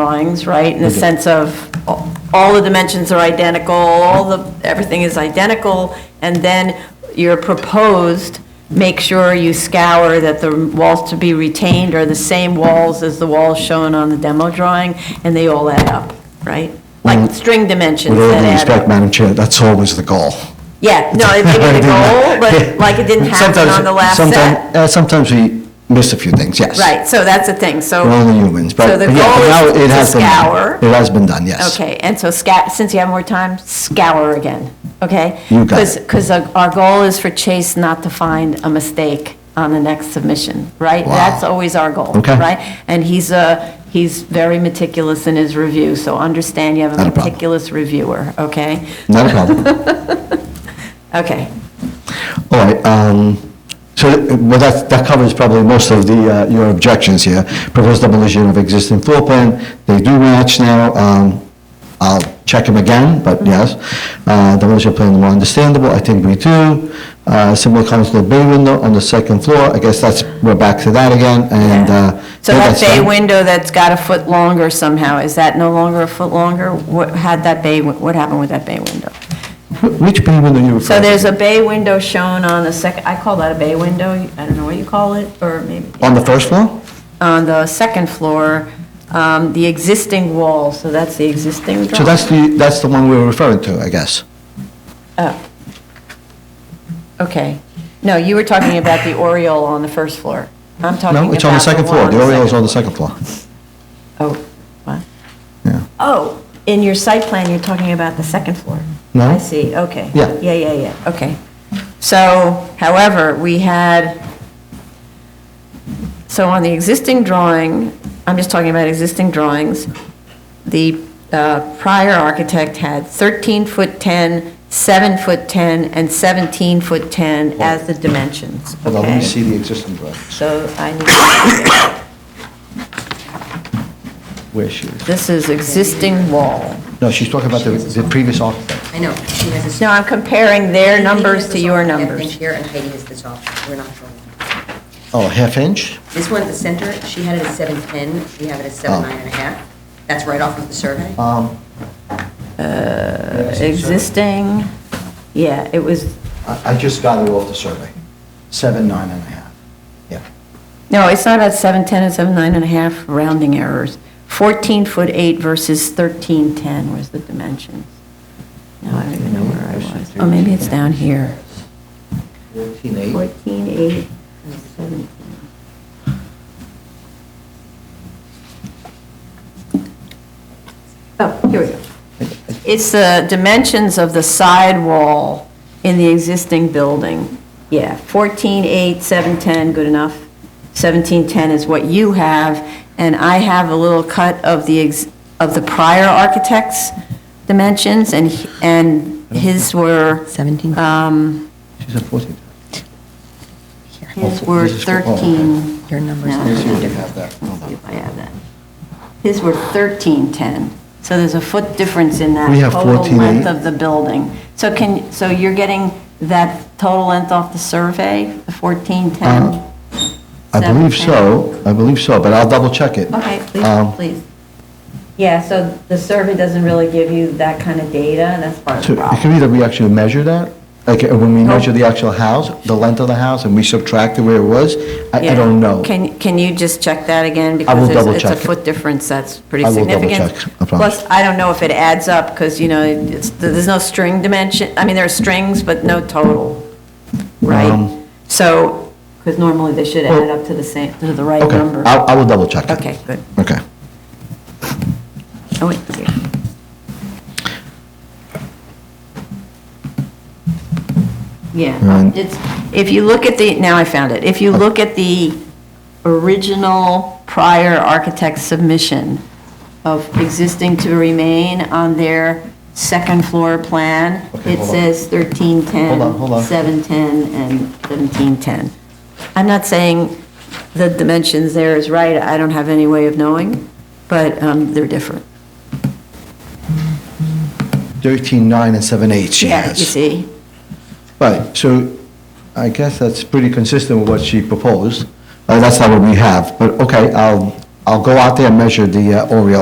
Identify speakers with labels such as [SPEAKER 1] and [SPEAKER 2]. [SPEAKER 1] drawings, right? In the sense of, a- all the dimensions are identical, all the, everything is identical, and then your proposed, make sure you scour that the walls to be retained are the same walls as the walls shown on the demo drawing, and they all add up, right? Like
[SPEAKER 2] Well,
[SPEAKER 1] string dimensions
[SPEAKER 2] Mm. With all
[SPEAKER 1] that
[SPEAKER 2] due
[SPEAKER 1] add
[SPEAKER 2] respect,
[SPEAKER 1] up.
[SPEAKER 2] Madam Chair, that's always the goal.
[SPEAKER 1] Yeah, no, it may be the goal, but like it didn't happen
[SPEAKER 2] Sometimes-
[SPEAKER 1] on the last set.
[SPEAKER 2] sometime- uh, Sometimes we miss a few things, yes.
[SPEAKER 1] Right, so that's the thing, so.
[SPEAKER 2] We're only humans, but
[SPEAKER 1] So the
[SPEAKER 2] but yeah, but now
[SPEAKER 1] goal
[SPEAKER 2] it
[SPEAKER 1] is
[SPEAKER 2] has
[SPEAKER 1] to
[SPEAKER 2] been done.
[SPEAKER 1] scour.
[SPEAKER 2] It has been done, yes.
[SPEAKER 1] Okay, and so sca, since you have more time, scour again, okay?
[SPEAKER 2] You got it.
[SPEAKER 1] Because our goal is for Chase not to find a mistake on the next submission, right?
[SPEAKER 2] Wow.
[SPEAKER 1] That's always our goal,
[SPEAKER 2] Okay.
[SPEAKER 1] right? And he's, uh, he's very meticulous in his review, so understand you have
[SPEAKER 2] Not
[SPEAKER 1] a
[SPEAKER 2] a problem.
[SPEAKER 1] meticulous reviewer, okay?
[SPEAKER 2] Not a problem.
[SPEAKER 1] Okay,
[SPEAKER 2] All right, um, so, uh, well, that, that covers probably most of the, uh, your objections here. Proposed demolition of existing floor plan, they do match now. Um, I'll check them again,
[SPEAKER 1] Mm-hmm.
[SPEAKER 2] but yes. Uh, Demolition plan more understandable, I think we do. Uh, Similar comments to the bay window on the second floor, I guess that's, we're back to that again, and. uh,
[SPEAKER 1] yeah. So
[SPEAKER 2] yeah,
[SPEAKER 1] that
[SPEAKER 2] that's
[SPEAKER 1] bay
[SPEAKER 2] done.
[SPEAKER 1] window that's got a foot longer somehow, is that no longer a foot longer? What had that bay, win- what happened with that bay window?
[SPEAKER 2] Wh- Which bay window you referring to?
[SPEAKER 1] So there's a bay window shown on the second, I call that a bay window, I don't know what you call it, or maybe.
[SPEAKER 2] On the first floor?
[SPEAKER 1] On the second floor, um, the existing wall, so that's the existing
[SPEAKER 2] So
[SPEAKER 1] drawing.
[SPEAKER 2] that's the, that's the one we were referring to, I guess.
[SPEAKER 1] Oh. Okay. No, you were talking about the oriole on the first floor. I'm talking about.
[SPEAKER 2] No, it's on the second
[SPEAKER 1] one
[SPEAKER 2] floor, the
[SPEAKER 1] second
[SPEAKER 2] Oriole is on the second floor.
[SPEAKER 1] Oh, what?
[SPEAKER 2] Yeah.
[SPEAKER 1] Oh, in your site plan, you're talking about the second floor?
[SPEAKER 2] No.
[SPEAKER 1] I see, okay.
[SPEAKER 2] Yeah.
[SPEAKER 1] Yeah, yeah, yeah, okay. So, however, we had, so on the existing drawing, I'm just talking about existing drawings, the uh, prior architect had 13 foot 10, 7 foot 10, and 17 foot 10 as the dimensions, okay?
[SPEAKER 2] Hold on, let me see the existing drawings.
[SPEAKER 1] So I need,
[SPEAKER 2] Where she is.
[SPEAKER 1] this is existing wall.
[SPEAKER 2] No, she's talking about the, the previous architect.
[SPEAKER 3] I know, she has a.
[SPEAKER 1] No, I'm comparing their numbers to your
[SPEAKER 3] Heidi has the soft
[SPEAKER 1] numbers.
[SPEAKER 3] thing Here, and Heidi has the soft, we're not going.
[SPEAKER 2] Oh, half inch?
[SPEAKER 3] This one at the center, she had it at 710, we have it at seven nine and a half. That's right off of the survey.
[SPEAKER 2] Um,
[SPEAKER 1] Uh, Existing, yeah, it was,
[SPEAKER 2] I, I just got it off the survey. Seven, nine and a half. Yeah.
[SPEAKER 1] no, it's not at 710, it's at nine and a half, rounding errors. 14 foot 8 versus 1310 was the dimensions. Now, I don't even know where I was. Oh, maybe it's down here.
[SPEAKER 2] Fourteen
[SPEAKER 1] 14, 8, 17. Oh, here we go. It's the dimensions of the side wall in the existing building. Yeah, 14, 8, 7, 10, good enough. 17, 10 is what you have, and I have a little cut of the, ex- of the prior architect's dimensions, and, he- and his were,
[SPEAKER 3] 17.
[SPEAKER 1] um,
[SPEAKER 2] She's at fourteen.
[SPEAKER 1] his were
[SPEAKER 2] This is for- oh, okay.
[SPEAKER 1] 13.
[SPEAKER 3] Your numbers
[SPEAKER 1] No,
[SPEAKER 3] are
[SPEAKER 1] they're
[SPEAKER 2] Let's see what you
[SPEAKER 1] different.
[SPEAKER 2] have there.
[SPEAKER 1] Let's
[SPEAKER 2] Hold
[SPEAKER 1] see
[SPEAKER 2] on.
[SPEAKER 1] if I have that. His were 1310, so there's a foot difference in that
[SPEAKER 2] We have
[SPEAKER 1] total
[SPEAKER 2] 14.
[SPEAKER 1] length of the building. So can, so you're getting that total length off the survey, the 1410?
[SPEAKER 2] Um, I believe so, I believe so, but I'll double check it.
[SPEAKER 1] Okay,
[SPEAKER 2] Um,
[SPEAKER 1] please, please. Yeah, so the survey doesn't really give you that kind of data, and that's part of the
[SPEAKER 2] So it
[SPEAKER 1] problem.
[SPEAKER 2] could be that we actually measure that, like uh, when we measure the actual house, the length of the house, and we subtract it where it was. I, I
[SPEAKER 1] Yeah.
[SPEAKER 2] don't know.
[SPEAKER 1] Can, can you just check that again?
[SPEAKER 2] will
[SPEAKER 1] Because
[SPEAKER 2] double
[SPEAKER 1] it's-
[SPEAKER 2] check
[SPEAKER 1] it's
[SPEAKER 2] it.
[SPEAKER 1] a foot difference, that's pretty
[SPEAKER 2] I will double
[SPEAKER 1] significant.
[SPEAKER 2] check, I promise.
[SPEAKER 1] Plus, I don't know if it adds up, because, you know, it's, there's no string dimension, I mean, there are strings, but no total, right?
[SPEAKER 2] Um,
[SPEAKER 1] So, because normally they should add
[SPEAKER 2] Well-
[SPEAKER 1] up to the same, to the right
[SPEAKER 2] Okay,
[SPEAKER 1] number.
[SPEAKER 2] I, I will double check it.
[SPEAKER 1] Okay, good.
[SPEAKER 2] Okay.
[SPEAKER 1] Oh, wait, here. Yeah,
[SPEAKER 2] Right.
[SPEAKER 1] um, it's, if you look at the, now I found it, if you look at the original prior architect submission of existing to remain on their second floor plan,
[SPEAKER 2] Okay,
[SPEAKER 1] it
[SPEAKER 2] hold on.
[SPEAKER 1] says thirteen ten,
[SPEAKER 2] Hold on, hold on.
[SPEAKER 1] seven ten, and seventeen ten. I'm not saying the dimensions there is right, I don't have any way of knowing, but um, they're different.
[SPEAKER 2] 13, 9, and 7, 8 she
[SPEAKER 1] Yeah,
[SPEAKER 2] has.
[SPEAKER 1] you see?
[SPEAKER 2] Right, so I guess that's pretty consistent with what she proposed. Uh, That's not what we have, but okay, I'll, I'll go out there and measure the uh, Oriole